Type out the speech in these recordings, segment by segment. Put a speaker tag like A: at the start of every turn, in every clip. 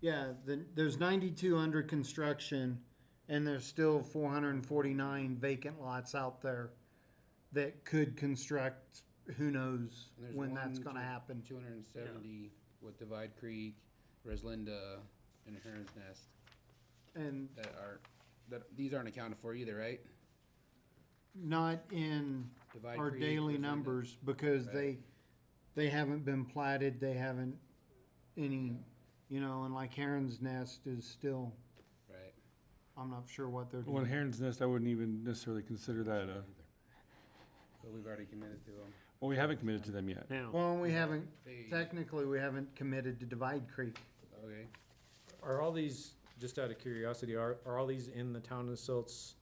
A: Yeah, the, there's ninety-two under construction, and there's still four hundred and forty-nine vacant lots out there that could construct, who knows
B: And there's
A: when that's
B: one,
A: gonna
B: two-
A: happen.
B: Two hundred and seventy with Divide Creek, Reslinda, and Heron's Nest
A: And
B: that are, that, these aren't accounted for either, right?
A: not in
B: Divide
A: our
B: Creek,
A: daily
B: Reslinda.
A: numbers, because
B: Right.
A: they, they haven't been platted, they haven't any, you know, and like Heron's Nest is still,
B: Right.
A: I'm not sure what they're
C: Well, in
A: doing.
C: Heron's Nest, I wouldn't even necessarily consider that a,
B: But we've already committed to them.
C: well, we haven't committed to them yet.
D: Now,
A: Well, we haven't,
B: They,
A: technically, we haven't committed to Divide Creek.
B: okay,
D: are all these, just out of curiosity, are, are all these in the town of Silt's,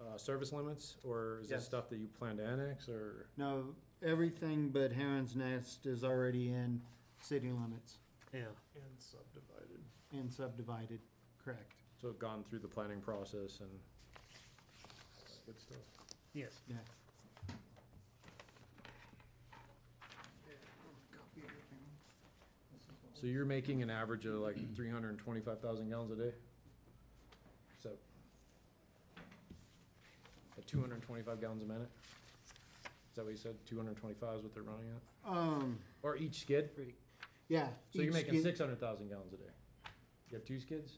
D: uh, service limits? Or is this
A: Yes.
D: stuff that you plan to annex or?
A: No, everything but Heron's Nest is already in city limits
D: Yeah.
E: And subdivided.
A: and subdivided, correct,
D: So gone through the planning process and,
E: Good stuff.
F: Yes.
A: yeah.
D: so you're making an average of like three hundred and twenty-five thousand gallons a day? So. At two hundred and twenty-five gallons a minute? Is that what you said? Two hundred and twenty-five is what they're running at?
A: Um,
D: Or each skid?
A: yeah.
D: So you're
A: each
D: making
A: skid-
D: six hundred thousand gallons a day? You have two skids?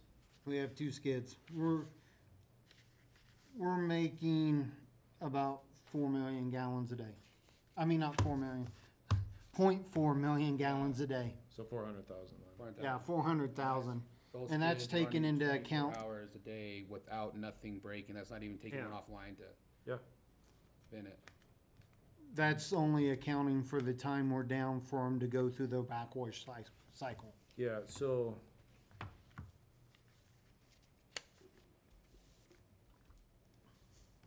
A: We have two skids. We're, we're making about four million gallons a day. I mean, not four million, point four million gallons a day.
D: So four hundred thousand.
B: Warrant
A: Yeah,
B: that.
A: four hundred thousand.
B: Both
A: and that's
B: kids
A: taken
B: running
A: into
B: 24
A: account-
B: Hours a day without nothing breaking, that's not even taking
F: Yeah.
B: one offline to.
D: Yeah.
B: Spin it.
A: That's only accounting for the time we're down for them to go through their backwash cy- cycle.
D: Yeah, so.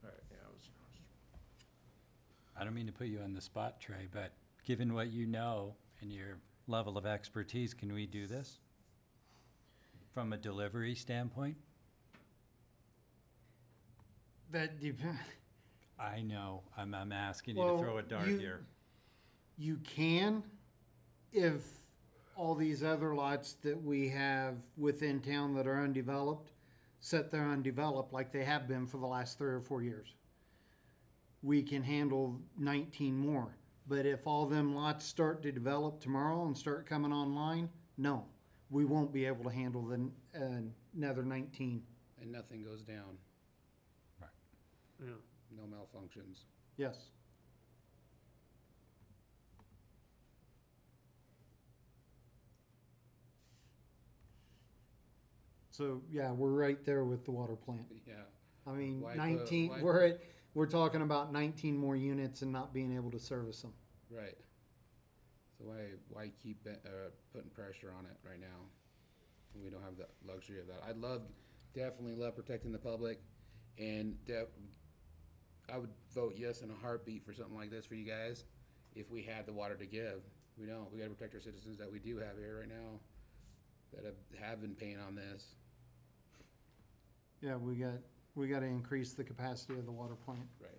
D: Alright, yeah, I was, I was-
G: I don't mean to put you on the spot, Trey, but given what you know and your level of expertise, can we do this? From a delivery standpoint?
A: That depends.
G: I know, I'm, I'm asking you to
A: Well,
G: throw a dart
A: you-
G: here.
A: You can if all these other lots that we have within town that are undeveloped sit there undeveloped like they have been for the last three or four years. We can handle nineteen more. But if all them lots start to develop tomorrow and start coming online, no, we won't be able to handle the, uh, another nineteen.
B: And nothing goes down,
F: Yeah.
B: no malfunctions.
A: Yes. So, yeah, we're right there with the water plant.
B: Yeah,
A: I mean,
B: Why the-
A: nineteen,
B: why-
A: we're at, we're talking about nineteen more units and not being able to service them.
B: right. So why, why keep, it, uh, putting pressure on it right now? when We don't have the luxury of that. I'd love, definitely love protecting the public and def- I would vote yes in a heartbeat for something like this for you guys if we had the water to give. We don't. We gotta protect our citizens that we do have here right now that have, have been paying on this.
A: Yeah, we got, we gotta increase the capacity of the water plant.
B: Right.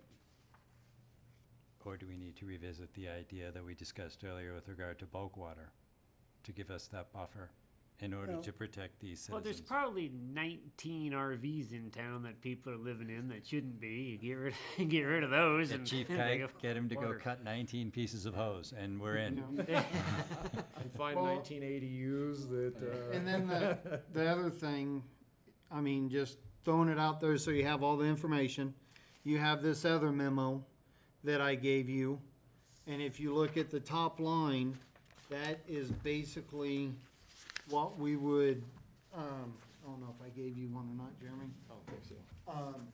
G: Or do we need to revisit the idea that we discussed earlier with regard to bulk water? To give us that buffer in order
A: Well-
G: to protect these citizens?
F: Well, there's probably 19 RVs in town that people are living in that shouldn't be. You get rid, get rid of those.
G: Get
F: and
G: Chief
F: they
G: Kike,
F: go-
G: get him to go
F: water.
G: cut nineteen pieces of hose and we're
A: you
G: in.
A: know?
D: and find
A: Well-
D: nineteen ADUs that, uh.
A: And then the, the other thing, I mean, just throwing it out there so you have all the information. You have this other memo that I gave you. And if you look at the top line, that is basically what we would, um, I don't know if I gave you one or not, Jeremy. I don't think so. Um,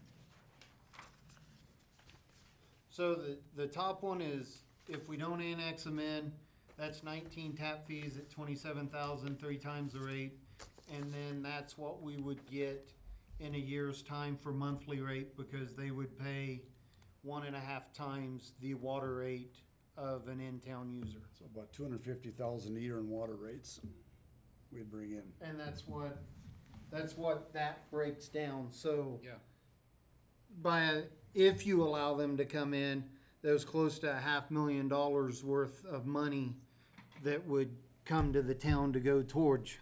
A: so the, the top one is, if we don't annex them in, that's nineteen tap fees at twenty-seven thousand, three times the rate. And then that's what we would get in a year's time for monthly rate, because they would pay one and a half times the water rate of an in-town user.
H: So about two hundred and fifty thousand a year in water rates we'd bring in.
A: And that's what, that's what that breaks down, so.
B: Yeah.
A: By, a- if you allow them to come in, there's close to a half million dollars worth of money that would come to the town to go towards